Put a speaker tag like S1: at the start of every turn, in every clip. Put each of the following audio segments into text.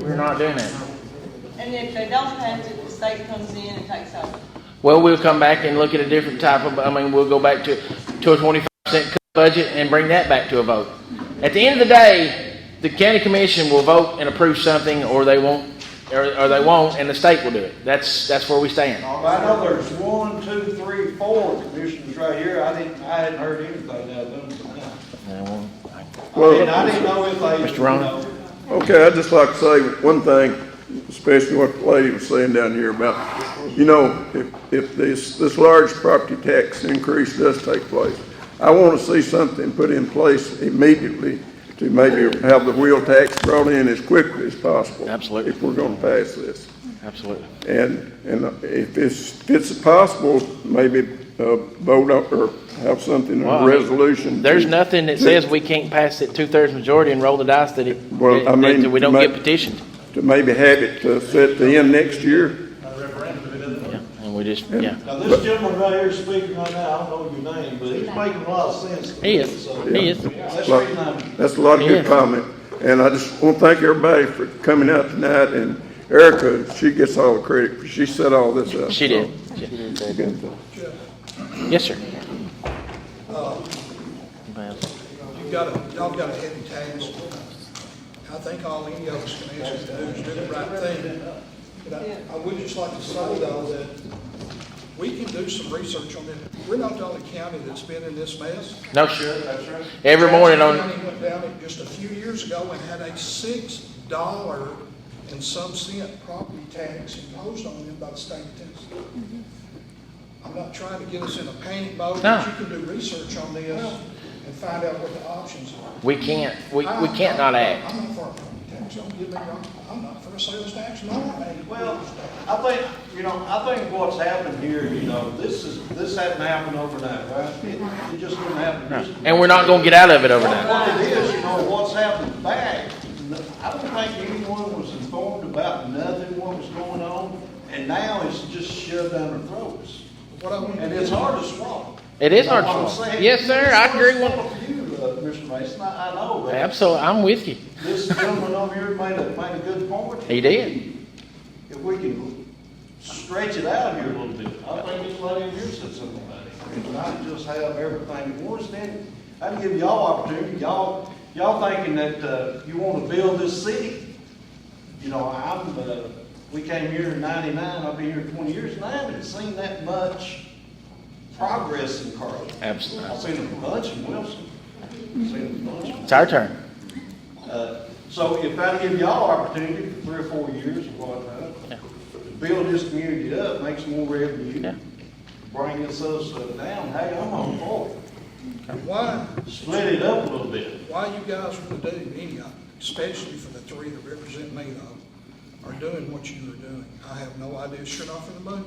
S1: We're not doing it.
S2: And if they don't pass it, the state comes in and takes over.
S1: Well, we'll come back and look at a different type of, I mean, we'll go back to, to a twenty-five percent cut budget and bring that back to a vote. At the end of the day, the county commission will vote and approve something, or they won't, or, or they won't, and the state will do it. That's, that's where we stand.
S3: I know there's one, two, three, four commissioners right here, I didn't, I hadn't heard anything of them. And I
S4: Well,
S3: didn't know if they.
S1: Mr. Ron?
S3: you know,
S4: okay, I'd just like to say one thing, especially what the lady was saying down here about, you know, if, if this, this large property tax increase does take place, I want to see something put in place immediately to maybe have the wheel tax brought in as quickly as possible.
S1: Absolutely.
S4: If we're going to pass this.
S1: Absolutely.
S4: And, and if it's, if it's possible, maybe uh, vote up or have something in
S1: Well, I
S4: a
S1: mean,
S4: resolution. to-
S1: There's nothing that says we can't pass it two-thirds majority and roll the dice that it,
S4: Well,
S1: that-
S4: I
S1: that
S4: mean,
S1: we don't
S4: ma-
S1: get petitioned.
S4: To maybe have it uh, set the end next year.
S1: Yeah, And we just, yeah.
S3: Now, this gentleman right here speaking right now, I don't know your name, but he's making a lot of sense. to me,
S1: He is,
S3: so-
S1: he is.
S3: That's the reason I'm.
S4: That's a lot of good
S1: Yeah.
S4: comment. And I just want to thank everybody for coming out tonight. And Erica, she gets all the credit, for she set all this up.
S1: She did.
S4: did.
S1: Yes, sir.
S5: You've got a, y'all got a heavy task. I think all any of us can answer to do is do the right thing. But I, I would just like to say though that we can do some research on it. We're not the only county that's been in this mess.
S1: No, sure. Every morning on,
S5: Jackson County went down it just a few years ago and had a six dollar and some cent property tax imposed on them by the state of Tennessee. I'm not trying to get us in a panic mode,
S1: No.
S5: but you can do research on this and find out what the options are.
S1: we can't, we, we can't not act.
S5: I'm not for a property tax, don't get me wrong, I'm not for a sales tax, no, I ain't.
S3: Well, I think, you know, I think what's happened here, you know, this is, this hadn't happened overnight, right? It it just didn't happen. just-
S1: And we're not gonna get out of it overnight.
S3: What it is, you know, what's happened back, I don't think anyone was informed about nothing, what was going on, and now it's just shoved down their throats.
S5: What I want to
S3: And
S5: do
S3: it's
S5: is,
S3: hard to swallow.
S1: It is hard
S3: That's what
S1: to
S3: I'm
S1: swallow.
S3: saying.
S1: Yes, sir, I agree with-
S3: It's hard to swallow for you, uh, Mr. Mason, I, I know, but
S1: Absolutely, I'm with you.
S3: this gentleman over here made a, made a good point.
S1: He did.
S3: If we can stretch it out here a little bit, I think this lady over here said something about it. And not just have everything at once, then I can give y'all opportunity, y'all, y'all thinking that, uh, you wanna build this city. You know, I'm, uh, we came here in ninety-nine, I've been here twenty years, and I haven't seen that much progress in Carlisle.
S1: Absolutely.
S3: I've seen a bunch in Wilson, I've seen a bunch in
S1: It's our turn.
S3: uh, So if I give y'all opportunity for three or four years or
S1: Yeah.
S3: whatnot, to build this community up, make some more
S1: Yeah.
S3: revenue, bring this other stuff down, hey, I'm on board.
S5: why,
S3: Split it up a little bit.
S5: why you guys want to do any of it, especially for the three that represent me though, are doing what you are doing, I have no idea, sure not for the money.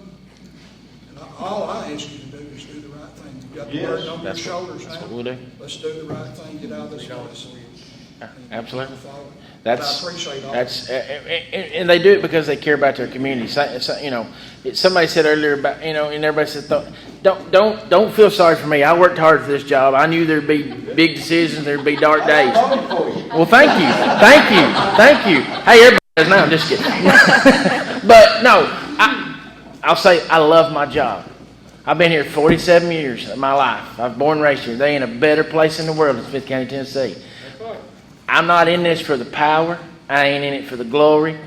S5: And I- all I ask you to do is do the right thing, you've got the
S3: Yes,
S5: burden on your
S1: that's what-
S5: shoulders now.
S1: that's what we'll do.
S5: Let's do the right thing, get out of this mess.
S1: Absolutely.
S5: But
S1: That's,
S5: I appreciate all.
S1: that's, eh, and, and they do it because they care about their community. So, so, you know, it- somebody said earlier about, you know, and everybody said, "Don't- don't, don't, don't feel sorry for me. I worked hard for this job. I knew there'd be big decisions, there'd be dark
S3: I'm
S1: days.
S3: voting for you.
S1: Well, thank you, thank you, thank you. Hey, everybody does now. I'm just kidding. but no, I, I'll say I love my job. I've been here 47 years of my life. I've born and raised here. They ain't a better place in the world than Smith County, Tennessee. I'm not in this for the power. I ain't in it for the glory.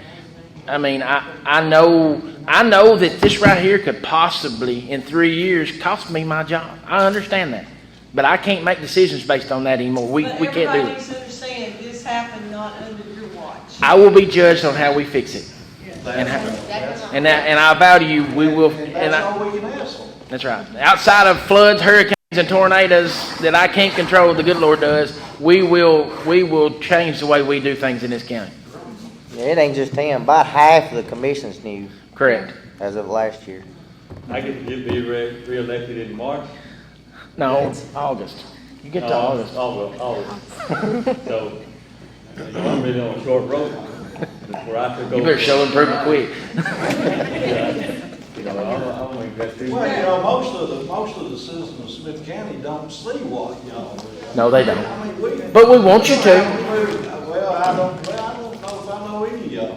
S1: I mean, I, I know I know that this right here could possibly, in three years, cost me my job. I understand that, but I can't make decisions based on that anymore. We
S2: But
S1: we can't
S2: everybody
S1: do it.
S2: needs to understand, this happened not under your watch.
S1: I will be judged on how we fix it. And how, and that, and I vow to you, we will,
S3: And
S1: and
S3: that's
S1: I,
S3: all we can ask for.
S1: that's right. Outside of floods, hurricanes and tornadoes that I can't control, the good Lord does, we will, we will change the way we do things in this county.
S6: It ain't just him, about half of the commission's new
S1: Correct.
S6: as of last year.
S7: I get to be re- re-elected in March. Oh,
S1: No, August. You get to August.
S7: August, August. So, you know, I'm really on a short road. That's where I could go.
S1: You better show improvement quick.
S7: You know, I'm, I'm like, that's.
S3: Well, you know, most of the, most of the citizens of Smith County don't see what y'all do.
S1: No, they don't.
S3: I mean, we.
S1: But we want you to.
S3: Well, I don't, well, I don't know if I know any of y'all.